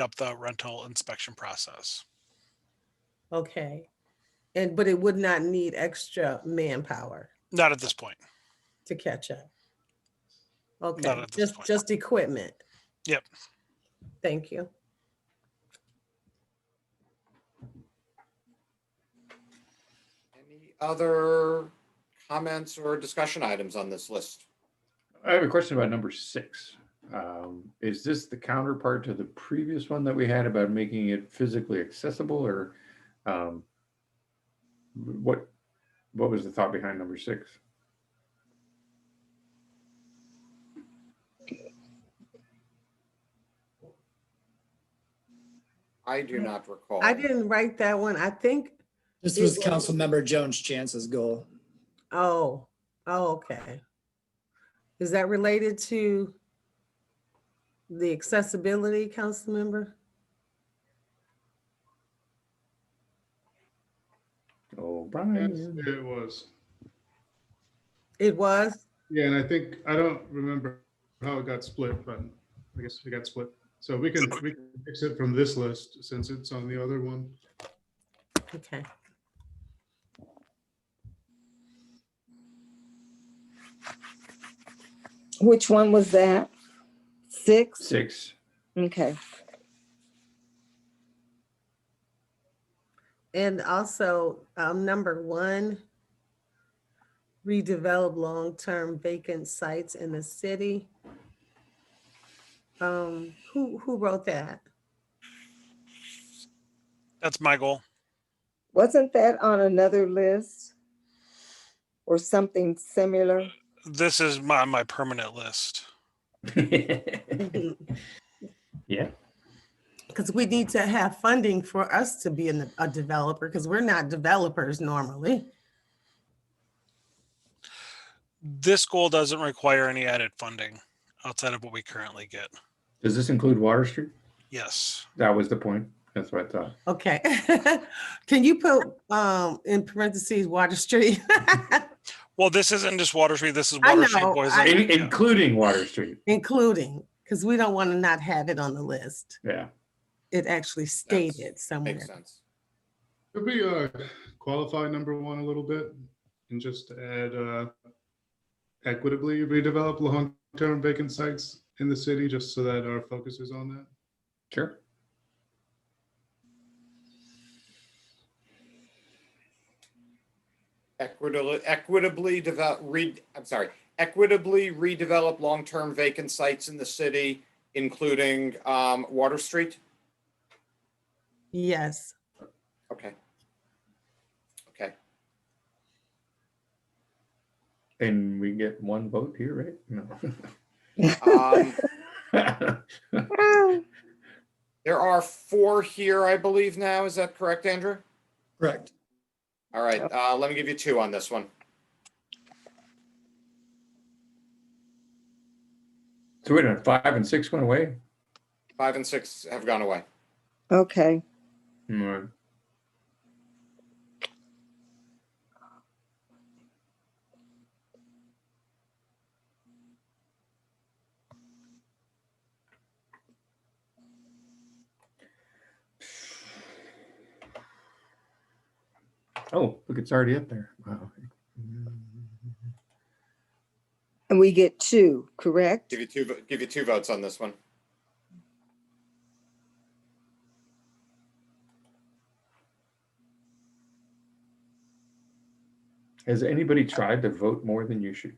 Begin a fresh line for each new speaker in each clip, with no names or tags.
up the rental inspection process.
Okay. And, but it would not need extra manpower
Not at this point.
to catch up. Okay,
at this
just,
point.
just equipment.
Yep.
Thank you.
Any other comments or discussion items on this list?
I have a question about number six. Um, Is this the counterpart to the previous one that we had about making it physically accessible or um, what, what was the thought behind number six?
I do not recall.
I didn't write that one. I think,
This
It
was
was-
Councilmember Jones Chance's goal.
oh, oh, okay. Is that related to the accessibility, council member?
Oh,
Yes,
Brian,
it was.
It was?
Yeah, and I think, I don't remember how it got split, but I guess it got split. So we can, we can fix it from this list since it's on the other one.
Okay.
Which one was that? Six?
six.
Okay.
And also, um, number one, redevelop long-term vacant sites in the city. Um, who, who wrote that?
That's my goal.
Wasn't that on another list? Or something similar?
This is my, my permanent list.
Yeah,
Because we need to have funding for us to be in the- a developer, because we're not developers normally.
This goal doesn't require any added funding outside of what we currently get.
does this include Water Street?
Yes.
That was the point. That's what I thought.
Okay. Can you put, um, in parentheses, Water Street?
Well, this isn't just Water Street. This is
I
Water Street
know,
Boys.
I-
and-
In- Including Water Street,
Including, because we don't want to not have it on the list.
yeah.
It actually stated somewhere.
Makes sense.
Could we uh, qualify number one a little bit and just add uh, equitably redevelop long-term vacant sites in the city, just so that our focus is on that?
Sure.
Equitably, equitably develop, read, I'm sorry, equitably redevelop long-term vacant sites in the city, including um, Water Street?
Yes.
Okay. Okay,
And we get one vote here, right? No.
um,
Ah,
there are four here, I believe now, is that correct, Andrew?
Correct.
All right, uh, let me give you two on this one.
So wait a minute, five and six went away?
Five and six have gone away.
Okay.
Right. Oh, look, it's already up there. Wow.
And we get two, correct?
Give you two, vo- give you two votes on this one.
Has anybody tried to vote more than you should?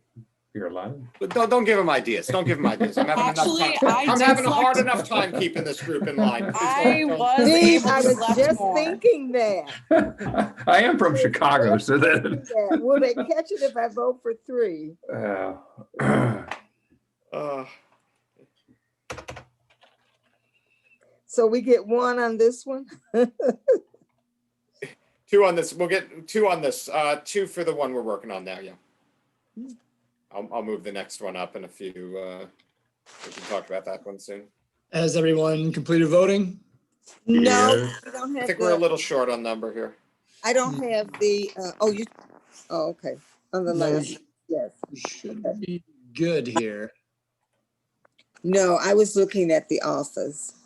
You're allowed?
But don't, don't give him ideas. Don't give him ideas. I'm having
Actually,
enough time.
I
I'm having a hard
deflect-
enough time keeping this group in line. Please
I
don't- don't-
was
Steve,
able
I
to
was
select
just
more.
thinking that.
I am from Chicago, so that.
Yeah, Will they catch it if I vote for three?
Uh,
Uh,
So we get one on this one?
Two on this. We'll get two on this. Uh, two for the one we're working on now, yeah. I'll, I'll move the next one up in a few, uh, we can talk about that one soon.
Has everyone completed voting?
No,
Yeah.
we don't
I
have
think we're a
the,
little short on number here.
I don't have the, uh, oh, you, oh, okay, on the
No, you
last,
sh-
yes.
you Should be good here.
No, I was looking at the office.